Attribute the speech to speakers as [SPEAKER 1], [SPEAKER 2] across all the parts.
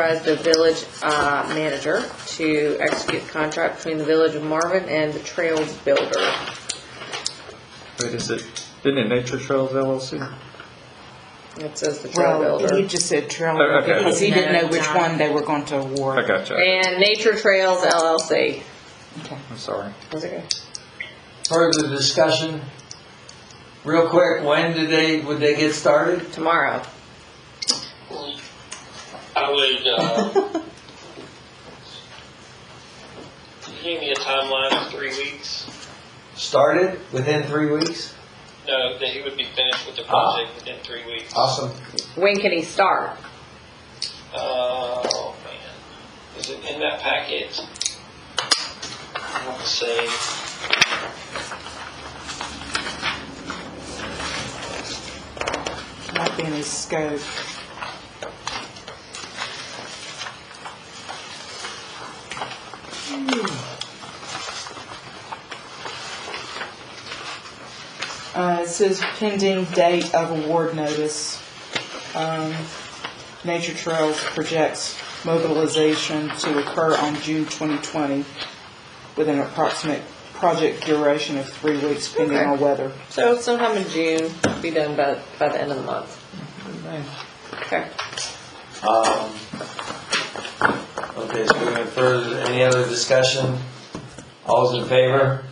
[SPEAKER 1] authorize the village uh, manager to execute contract between the village of Marvin and the Trails Builder.
[SPEAKER 2] Wait, is it, isn't it Nature Trails LLC?
[SPEAKER 1] It says the Trail
[SPEAKER 3] Well, he
[SPEAKER 1] Builder.
[SPEAKER 3] just said
[SPEAKER 2] Oh,
[SPEAKER 3] trailer
[SPEAKER 2] okay.
[SPEAKER 3] because he didn't know which
[SPEAKER 1] No,
[SPEAKER 3] one they were going to award.
[SPEAKER 2] I gotcha,
[SPEAKER 1] And Nature Trails LLC.
[SPEAKER 2] I'm sorry.
[SPEAKER 1] Was it good?
[SPEAKER 4] Further discussion? Real quick, when did they, would they get started?
[SPEAKER 1] Tomorrow.
[SPEAKER 5] I would, uh, give me a timeline of three weeks.
[SPEAKER 4] Started within three weeks?
[SPEAKER 5] No, uh, that he would be finished with the
[SPEAKER 4] Ah.
[SPEAKER 5] project within three weeks.
[SPEAKER 4] Awesome.
[SPEAKER 1] When can he start?
[SPEAKER 5] Oh, man. Is it in that packet? I want to say.
[SPEAKER 3] Might be in his scope. Uh, it says pending date of award notice. Um, Nature Trails projects mobilization to occur on June 2020 with an approximate project duration of three weeks pending
[SPEAKER 1] Okay.
[SPEAKER 3] on weather.
[SPEAKER 1] So sometime in June, be done by, by the end of the month. Okay.
[SPEAKER 4] Um, Okay, so we went further, any other discussion? All's in favor?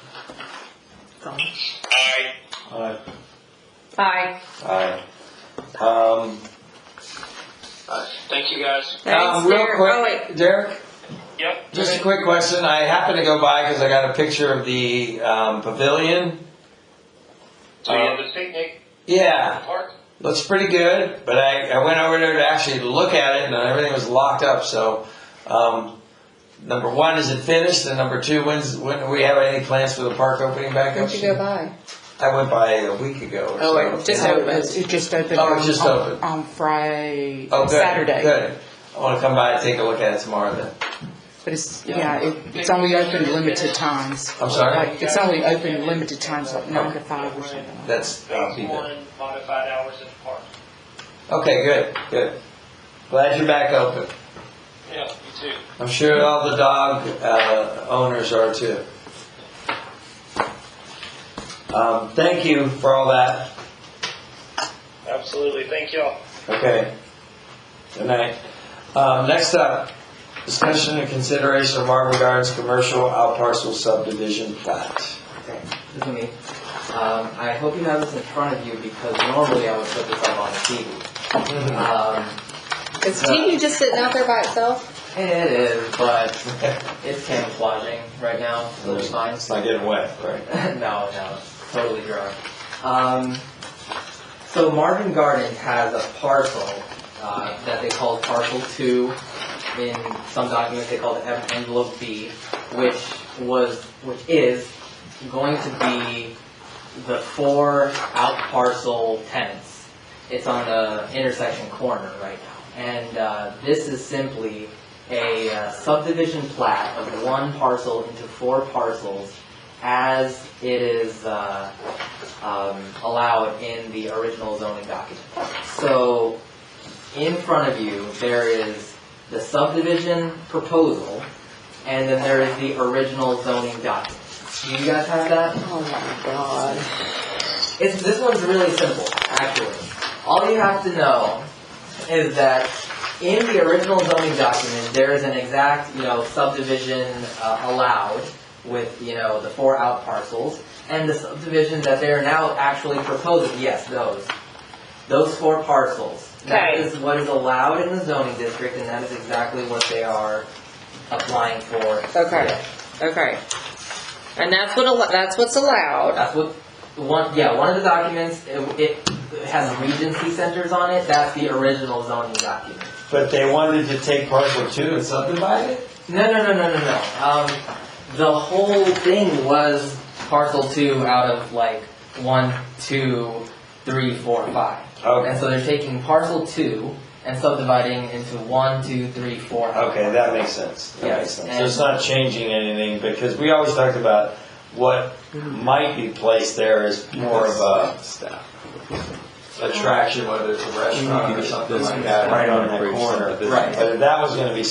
[SPEAKER 5] Aye.
[SPEAKER 4] Aye.
[SPEAKER 1] Hi.
[SPEAKER 4] Aye. Um,
[SPEAKER 5] Thank you, guys.
[SPEAKER 1] Thanks,
[SPEAKER 4] um, real
[SPEAKER 1] Derek.
[SPEAKER 4] quick-
[SPEAKER 1] Oh, wait.
[SPEAKER 4] Derek,
[SPEAKER 5] Yep.
[SPEAKER 4] just a quick question, I happened to go by because I got a picture of the um, pavilion.
[SPEAKER 5] So you
[SPEAKER 4] Uh,
[SPEAKER 5] have the picnic
[SPEAKER 4] Yeah,
[SPEAKER 5] park?
[SPEAKER 4] looks pretty good, but I, I went over there to actually look at it and everything was locked up, so, um, number one, is it finished? And number two, when's, when, do we have any plans for the park opening back up?
[SPEAKER 1] When'd you go by?
[SPEAKER 4] I went by a week ago or
[SPEAKER 1] Oh,
[SPEAKER 4] so.
[SPEAKER 1] wait, just
[SPEAKER 4] Yeah.
[SPEAKER 1] open.
[SPEAKER 3] It just opened
[SPEAKER 4] Oh, it
[SPEAKER 3] on,
[SPEAKER 4] just
[SPEAKER 3] on-
[SPEAKER 4] opened.
[SPEAKER 3] on Friday,
[SPEAKER 4] Oh, good,
[SPEAKER 3] Saturday.
[SPEAKER 4] Good. I wanna come by and take a look at it tomorrow then.
[SPEAKER 3] But it's, yeah, it, it's only open limited times.
[SPEAKER 4] I'm sorry?
[SPEAKER 3] Like, it's only open limited times, like nine to five or something.
[SPEAKER 4] That's, I'll be
[SPEAKER 5] Phase
[SPEAKER 4] there.
[SPEAKER 5] one, modified hours in the park.
[SPEAKER 4] Okay, good, good. Glad you're back open.
[SPEAKER 5] Yeah, you too.
[SPEAKER 4] I'm sure all the dog, uh, owners are too. Um, thank you for all that.
[SPEAKER 5] Absolutely. Thank y'all.
[SPEAKER 4] Okay. Good night. Um, next up, discussion and consideration of Marvin Gardens Commercial Outparcel Subdivision Plat.
[SPEAKER 6] Okay, this is me. Um, I hope you have this in front of you because normally I would put this up on TV. Um,
[SPEAKER 1] Is TV just sitting out there by itself?
[SPEAKER 6] it is, but it's camouflaging right now, so it's fine.
[SPEAKER 4] It's not getting wet, right?
[SPEAKER 6] no, no, it's totally dry. Um, so Marvin Gardens has a parcel uh, that they call Parcel Two. In some documents, they call it en- Envelope B, which was, which is going to be the four out parcel tenants. It's on a intersection corner right now, and uh, this is simply a uh, subdivision plat of one parcel into four parcels as it is uh, um, allowed in the original zoning document. So, in front of you, there is the subdivision proposal, and then there is the original zoning document. Do you guys have that?
[SPEAKER 1] Oh my god.
[SPEAKER 6] It's, this one's really simple, actually. All you have to know is that in the original zoning document, there is an exact, you know, subdivision uh, allowed with, you know, the four out parcels, and the subdivision that they are now actually proposing, yes, those. Those four parcels. That
[SPEAKER 1] Okay.
[SPEAKER 6] is what is allowed in the zoning district, and that is exactly what they are applying for.
[SPEAKER 1] Okay. Okay. And that's what, al- that's what's allowed.
[SPEAKER 6] Oh, That's what, one, yeah, one of the documents, it, it has Regency centers on it, that's the original zoning document.
[SPEAKER 4] But they wanted to take parcel two and subdivide it?
[SPEAKER 6] No, no, no, no, no, no, um, the whole thing was parcel two out of like one, two, three, four, five. And
[SPEAKER 4] Okay,
[SPEAKER 6] so they're taking parcel two and subdividing into one, two, three, four.
[SPEAKER 4] okay, that makes sense. That makes
[SPEAKER 6] Yes,
[SPEAKER 4] sense.
[SPEAKER 6] and-
[SPEAKER 4] So it's not changing anything because we always talked about what might be placed there is more of a
[SPEAKER 7] attraction, whether it's a restaurant or something like that, right on that corner.
[SPEAKER 4] Right.
[SPEAKER 7] But if that was gonna be